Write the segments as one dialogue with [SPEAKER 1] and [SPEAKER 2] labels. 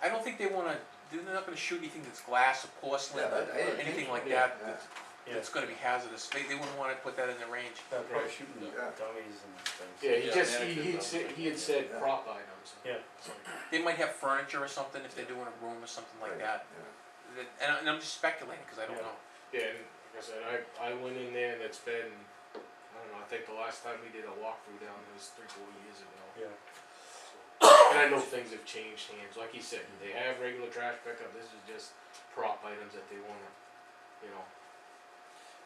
[SPEAKER 1] I don't think they wanna, they're not gonna shoot anything that's glass or porcelain,
[SPEAKER 2] Yeah,
[SPEAKER 1] or
[SPEAKER 2] I- I didn't
[SPEAKER 1] anything
[SPEAKER 2] think-
[SPEAKER 1] like
[SPEAKER 2] yeah,
[SPEAKER 1] that, that's,
[SPEAKER 3] yeah.
[SPEAKER 1] that's gonna be hazardous, they, they wouldn't wanna put that in the range.
[SPEAKER 3] They're probably shooting the
[SPEAKER 2] Yeah.
[SPEAKER 3] dummies and things.
[SPEAKER 4] Yeah, he
[SPEAKER 5] Yeah,
[SPEAKER 4] just, he,
[SPEAKER 5] mannequins,
[SPEAKER 4] he
[SPEAKER 5] I
[SPEAKER 4] had
[SPEAKER 5] was
[SPEAKER 4] said, he had
[SPEAKER 5] thinking,
[SPEAKER 4] said
[SPEAKER 2] yeah.
[SPEAKER 4] prop items.
[SPEAKER 3] Yeah.
[SPEAKER 1] They might have furniture or something if they're doing a room or something like that, That- and, I- and I'm just speculating, cause I don't
[SPEAKER 3] Yeah.
[SPEAKER 1] know.
[SPEAKER 4] Yeah, and like I said, I, I went in there and it's been, I don't know, I think the last time we did a walkthrough down there was three, four years ago.
[SPEAKER 3] Yeah,
[SPEAKER 4] And I know things have changed hands, like you said, they have regular trash pickup, this is just prop items that they wanna, you know.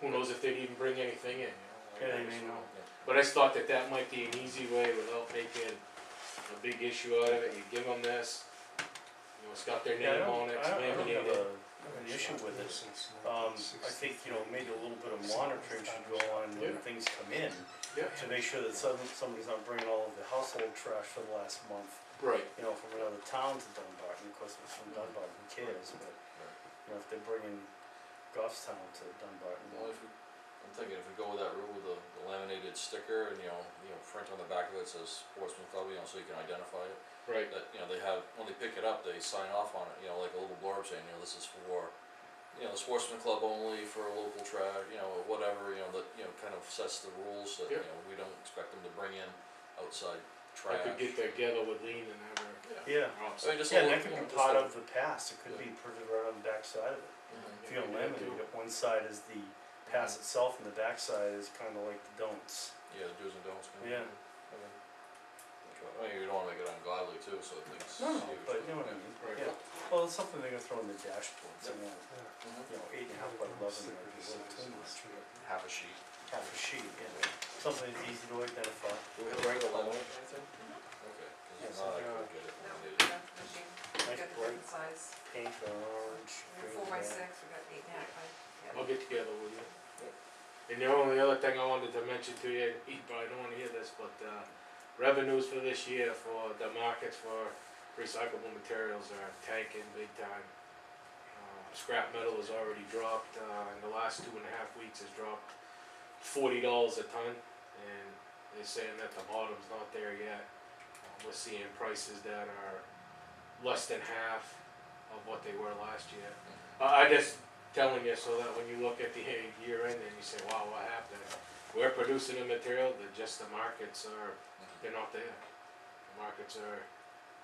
[SPEAKER 4] Who knows if they'd even bring anything in, you know? like,
[SPEAKER 3] Yeah, they
[SPEAKER 4] I just
[SPEAKER 3] may not.
[SPEAKER 4] don't know. But I just thought that that might be an easy way without making a big issue out of it, you give them this, you know, it's got their
[SPEAKER 3] Yeah, I
[SPEAKER 4] name
[SPEAKER 3] don't,
[SPEAKER 4] on it,
[SPEAKER 3] I
[SPEAKER 4] it's
[SPEAKER 3] don't, I don't
[SPEAKER 4] laminated.
[SPEAKER 3] have a, an issue with it. Um, I think, you know, maybe a little bit of monitoring should go on when
[SPEAKER 4] Yeah.
[SPEAKER 3] things come in,
[SPEAKER 4] Yeah,
[SPEAKER 3] to make sure that some, somebody's not bringing all of the household trash for the last month,
[SPEAKER 4] right,
[SPEAKER 3] you know, from another town to Dunbar, and of course, if it's from Dunbar, who cares, but, you know, if they're bringing Goffstown to Dunbar,
[SPEAKER 5] Well, if we, I'm thinking if we go with that rule with the the laminated sticker and, you know, you know, print on the back of it says Portsmouth Club, you know, so you can identify it.
[SPEAKER 4] right,
[SPEAKER 5] That, you know, they have, when they pick it up, they sign off on it, you know, like a little blurb saying, you know, this is for, you know, the Sportsman Club only for local trash, you know, whatever, you know, that, you know, kind of sets the rules that, you
[SPEAKER 4] Yep.
[SPEAKER 5] know, we don't expect them to bring in outside
[SPEAKER 4] I
[SPEAKER 5] trash.
[SPEAKER 4] could get together with Lean and have her.
[SPEAKER 3] Yeah,
[SPEAKER 4] Props.
[SPEAKER 5] I mean, just a
[SPEAKER 3] yeah, and
[SPEAKER 5] little-
[SPEAKER 3] that could
[SPEAKER 5] you know,
[SPEAKER 3] be
[SPEAKER 5] just
[SPEAKER 3] part
[SPEAKER 5] a-
[SPEAKER 3] of the past, it could be printed right on the backside of it.
[SPEAKER 5] Mhm.
[SPEAKER 3] If you eliminate it, one side is the pass itself and the backside is kinda like the don'ts.
[SPEAKER 5] Yeah, the do's and don'ts. kind of.
[SPEAKER 3] Yeah.
[SPEAKER 5] I mean, you don't wanna make it ungodly too, so it makes.
[SPEAKER 3] No, no,
[SPEAKER 5] huge.
[SPEAKER 3] but you know what I mean,
[SPEAKER 4] Right.
[SPEAKER 3] yeah. Well, it's something they're gonna throw in the dashboard, so, you know,
[SPEAKER 5] Mhm.
[SPEAKER 3] you know, eight and a half by eleven might be a little too much.
[SPEAKER 5] Half a sheet.
[SPEAKER 3] Half a sheet, yeah, something that's easy to identify.
[SPEAKER 5] Do we have a regular limit or anything? Okay, cause if
[SPEAKER 3] Yes,
[SPEAKER 5] not, I
[SPEAKER 3] uh,
[SPEAKER 5] could get it
[SPEAKER 6] No,
[SPEAKER 5] when we
[SPEAKER 6] we
[SPEAKER 5] need it.
[SPEAKER 6] got the machine, we
[SPEAKER 3] Nice
[SPEAKER 6] got the
[SPEAKER 3] bright
[SPEAKER 6] different size,
[SPEAKER 3] pink or orange,
[SPEAKER 6] we
[SPEAKER 3] green.
[SPEAKER 6] got four by
[SPEAKER 3] red.
[SPEAKER 6] six, we got eight and a half by,
[SPEAKER 4] I'll
[SPEAKER 6] yeah.
[SPEAKER 4] get together with you. And the only other thing I wanted to mention to you, you probably don't wanna hear this, but, uh, revenues for this year for the markets for recyclable materials are tanking big time. Uh, Scrap metal has already dropped, uh, in the last two and a half weeks has dropped forty dollars a ton, and they're saying that the bottom's not there yet. Uh, We're seeing prices that are less than half of what they were last year. Uh, I, I just, telling you so that when you look at the year end and you say, wow, what happened? We're producing the material that just the markets are, they're not there. The markets are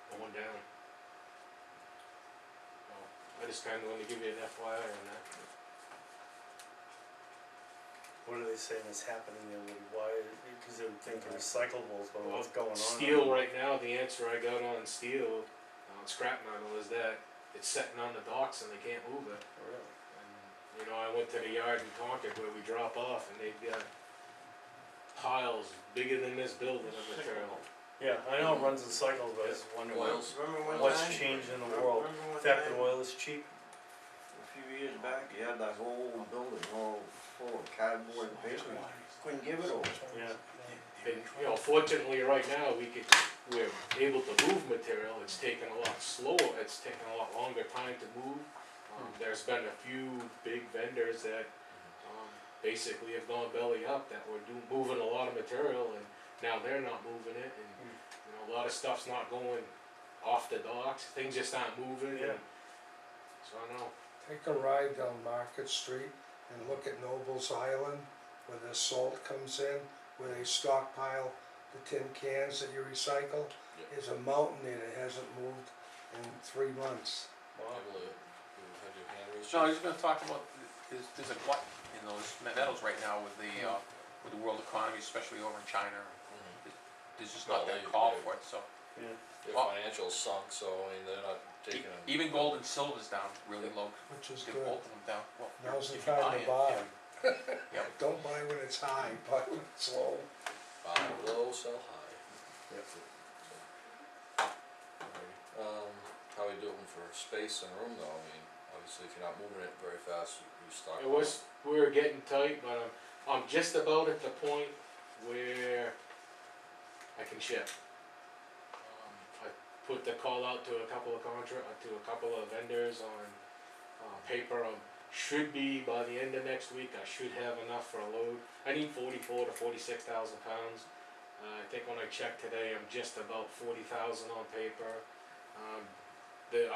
[SPEAKER 4] going down. So, I just kinda wanted to give you an FYI on that.
[SPEAKER 3] What are they saying is happening there, Woody? why, cause they would think recyclables, but what's going on?
[SPEAKER 4] Steel right now, the answer I got on steel, on scrap metal is that it's sitting on the docks and they can't move it.
[SPEAKER 3] Oh, Really?
[SPEAKER 4] And, You know, I went to the yard in Tonka where we drop off and they've got piles bigger than this building of material.
[SPEAKER 3] Yeah, I know it runs in cycles, but I just wonder what-
[SPEAKER 5] Oils.
[SPEAKER 2] Remember one time?
[SPEAKER 3] what's changed in the world.
[SPEAKER 2] Remember one
[SPEAKER 3] The fact that
[SPEAKER 2] time,
[SPEAKER 3] oil is cheap,
[SPEAKER 2] A few years back, you had that whole building all full of cardboard and paper, couldn't give it away.
[SPEAKER 3] yeah.
[SPEAKER 4] And, you know, fortunately, right now, we could, we're able to move material, it's taken a lot slower, it's taken a lot longer time to move. Um, there's been a few big vendors that, um, basically have gone belly up, that were do, moving a lot of material, and now they're not moving it, and, you know, a lot of stuff's not going off the docks, things just aren't moving,
[SPEAKER 3] Yeah.
[SPEAKER 4] and, so I know.
[SPEAKER 7] Take a ride down Market Street and look at Noble's Island where the salt comes in, where they stockpile the tin cans that you recycle.
[SPEAKER 5] Yeah.
[SPEAKER 7] There's a mountain there that hasn't moved in three months.
[SPEAKER 3] Wow.
[SPEAKER 5] Able to, you had your hand raised.
[SPEAKER 1] So I was just gonna talk about, there's, there's a glut in those metals right now with the, uh, with the world economy, especially over in China,
[SPEAKER 5] Mhm.
[SPEAKER 1] there's just
[SPEAKER 5] Well,
[SPEAKER 1] not that
[SPEAKER 5] they-
[SPEAKER 1] call
[SPEAKER 5] they-
[SPEAKER 1] for it, so.
[SPEAKER 5] Their
[SPEAKER 1] Oh.
[SPEAKER 5] financials sunk, so, I mean, they're not taking.
[SPEAKER 1] E- Even gold and silver's down really low,
[SPEAKER 7] Which is
[SPEAKER 1] get
[SPEAKER 7] good.
[SPEAKER 1] both of them down, well,
[SPEAKER 7] Now's the
[SPEAKER 1] if you buy
[SPEAKER 7] time
[SPEAKER 1] it,
[SPEAKER 7] to buy.
[SPEAKER 1] yeah. Yeah.
[SPEAKER 7] Don't buy when it's high, buy when it's low.
[SPEAKER 5] Buy low, sell high. Alrighty. Um, how we doing for space and room though, I mean, obviously if you're not moving it very fast, you you stock.
[SPEAKER 4] It was, we were getting tight, but I'm, I'm just about at the point where I can ship. Um, I put the call out to a couple of contra, uh, to a couple of vendors on, uh, paper, um, should be by the end of next week, I should have enough for a load. I need forty-four to forty-six thousand pounds. Uh, I think when I checked today, I'm just about forty thousand on paper. Um, the,